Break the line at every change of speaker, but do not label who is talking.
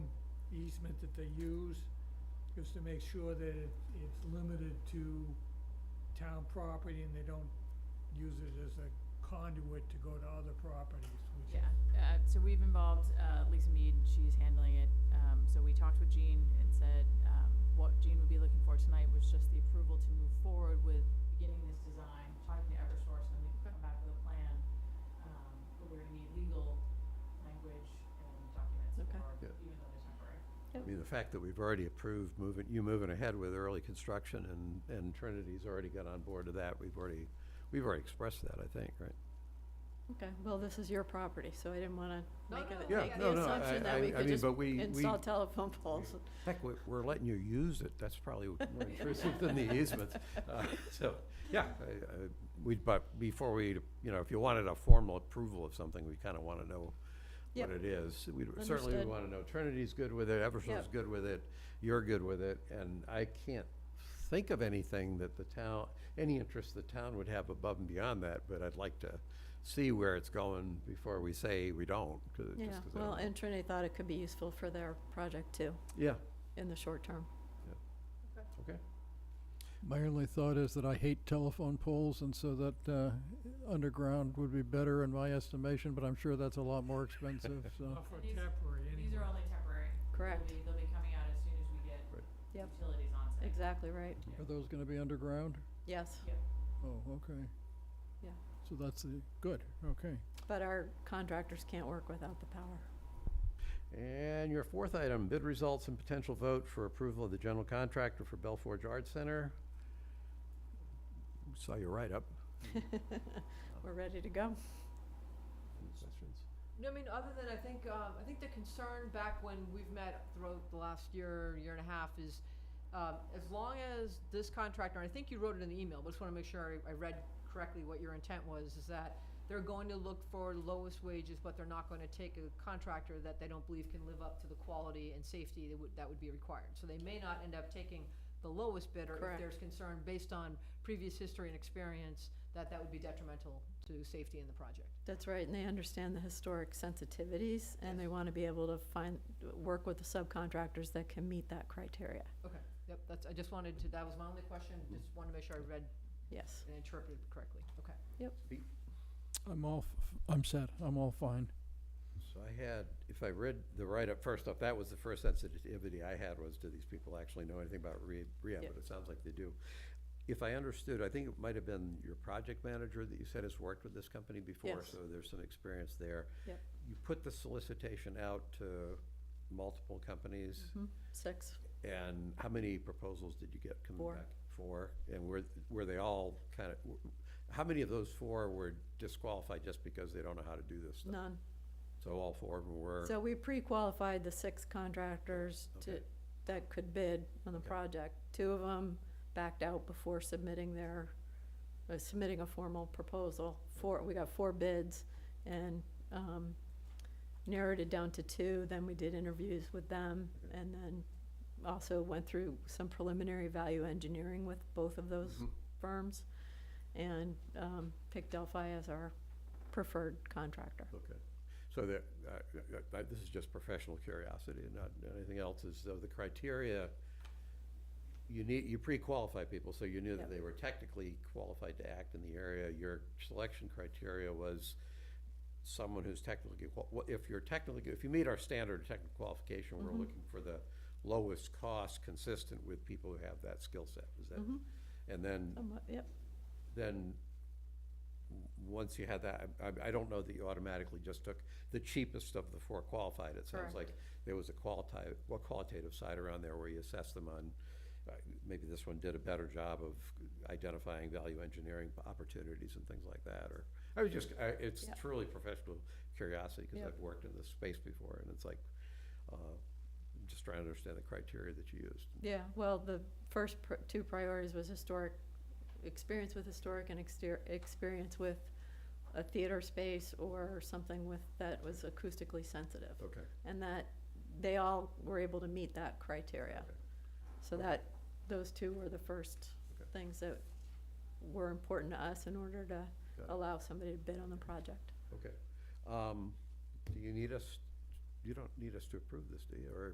easement that they use, just to make sure that it- it's limited to town property and they don't use it as a conduit to go to other properties, which
Yeah, uh, so we've involved, uh, Lisa Mead, she's handling it, um, so we talked with Jean and said, um, what Jean would be looking for tonight was just the approval to move forward with beginning this design, talking to Eversource, and we can come back with a plan. Um, but we're gonna need legal language and documents
Okay.
for,
Yeah.
even though they're temporary.
I mean, the fact that we've already approved moving, you moving ahead with early construction and, and Trinity's already got on board to that, we've already, we've already expressed that, I think, right?
Okay, well, this is your property, so I didn't want to
No,
make
no,
a-
yeah,
make
no,
the
no,
assumption
I-
that we
I- I
could
mean,
just
but we- we-
install telephone poles.
Heck, we- we're letting you use it, that's probably more intrusive than the easement. Uh, So, yeah, I- I- we, but before we, you know, if you wanted a formal approval of something, we kind of want to know
Yep.
what it is. We certainly would
Understood.
want to know, Trinity's good with it, Eversource's
Yep.
good with it, you're good with it, and I can't think of anything that the town, any interest the town would have above and beyond that, but I'd like to see where it's going before we say we don't. 'cause- just
Yeah,
'cause I
well,
don't-
and Trinity thought it could be useful for their project too,
Yeah,
in the short term.
okay.
My only thought is that I hate telephone poles, and so that uh, underground would be better in my estimation, but I'm sure that's a lot more expensive, so.
not for
These-
temporary anyway.
These are only temporary.
Correct.
They'll be, they'll be coming out as soon as we get
Right.
Yep.
utilities on site.
Exactly right.
Are those gonna be underground?
Yes,
Yep.
Oh, okay.
Yeah.
So that's the, good, okay.
but our contractors can't work without the power.
And your fourth item, bid results and potential vote for approval of the general contractor for Bell Forge Arts Center. Saw your write-up.
We're ready to go.
Any questions?
No, I mean, other than I think, um, I think the concern back when we've met throughout the last year, year and a half is, um, as long as this contractor, and I think you wrote it in the email, but just wanna make sure I, I read correctly what your intent was, is that they're going to look for lowest wages, but they're not gonna take a contractor that they don't believe can live up to the quality and safety that would, that would be required. So they may not end up taking the lowest bidder if
Correct.
there's concern based on previous history and experience, that that would be detrimental to safety in the project.
That's right, and they understand the historic sensitivities, and they want to be able to find, work with the subcontractors that can meet that criteria.
Okay, yep, that's, I just wanted to, that was my only question, just wanted to make sure I read
Yes.
and interpreted correctly, okay.
I'm all, f- I'm set, I'm all fine.
So I had, if I read the write-up, first off, that was the first sensitivity I had was, do these people actually know anything about re- rehab? But it sounds like they do. If I understood, I think it might have been your project manager that you said has worked with this company before.
Yes.
So there's some experience there.
Yep.
You put the solicitation out to multiple
Mm-hmm.
companies.
Six,
And how many proposals did you get coming
Four.
back? Four. And were, were they all kind of, how many of those four were disqualified just because they don't know how to do this stuff?
none.
So all four of them were?
So we pre-qualified the six contractors to,
Okay.
that could bid on the project. Two of them backed out before submitting their, uh, submitting a formal proposal. Four, we got four bids and um, narrowed it down to two, then we did interviews with them,
Okay.
and then also went through some preliminary value engineering with both of those firms, and um, picked Delphi as our preferred contractor.
Okay. So that, uh, uh, this is just professional curiosity and not anything else, is so the criteria, you need, you pre-qualify people, so you knew
Yep.
that they were technically qualified to act in the area. Your selection criteria was someone who's technically, qual- wha- if you're technically, if you meet our standard of technical qualification, we're looking for the lowest cost consistent with people who have that skill set, is that? And then
Somewhat, Yep.
then, w- once you had that, I, I- I don't know that you automatically just took the cheapest of the four qualified. It sounds
Correct.
like there was a qualitative, well, qualitative side around there where you assessed them on, uh, maybe this one did a better job of identifying value engineering opportunities and things like that, or, I was just, I- it's
Yep.
truly professional curiosity, because
Yep.
I've worked in this space before, and it's like, uh, I'm just trying to understand the criteria that you used.
Yeah, well, the first pr- two priorities was historic, experience with historic and exter- experience with a theater space or something with, that was acoustically sensitive.
Okay.
And that, they all were able to meet that criteria.
Okay.
So that, those two were the first
Okay.
things that were important to us in order to
Got it.
allow somebody to bid on the project.
Okay. Um, Do you need us, you don't need us to approve this, do you, or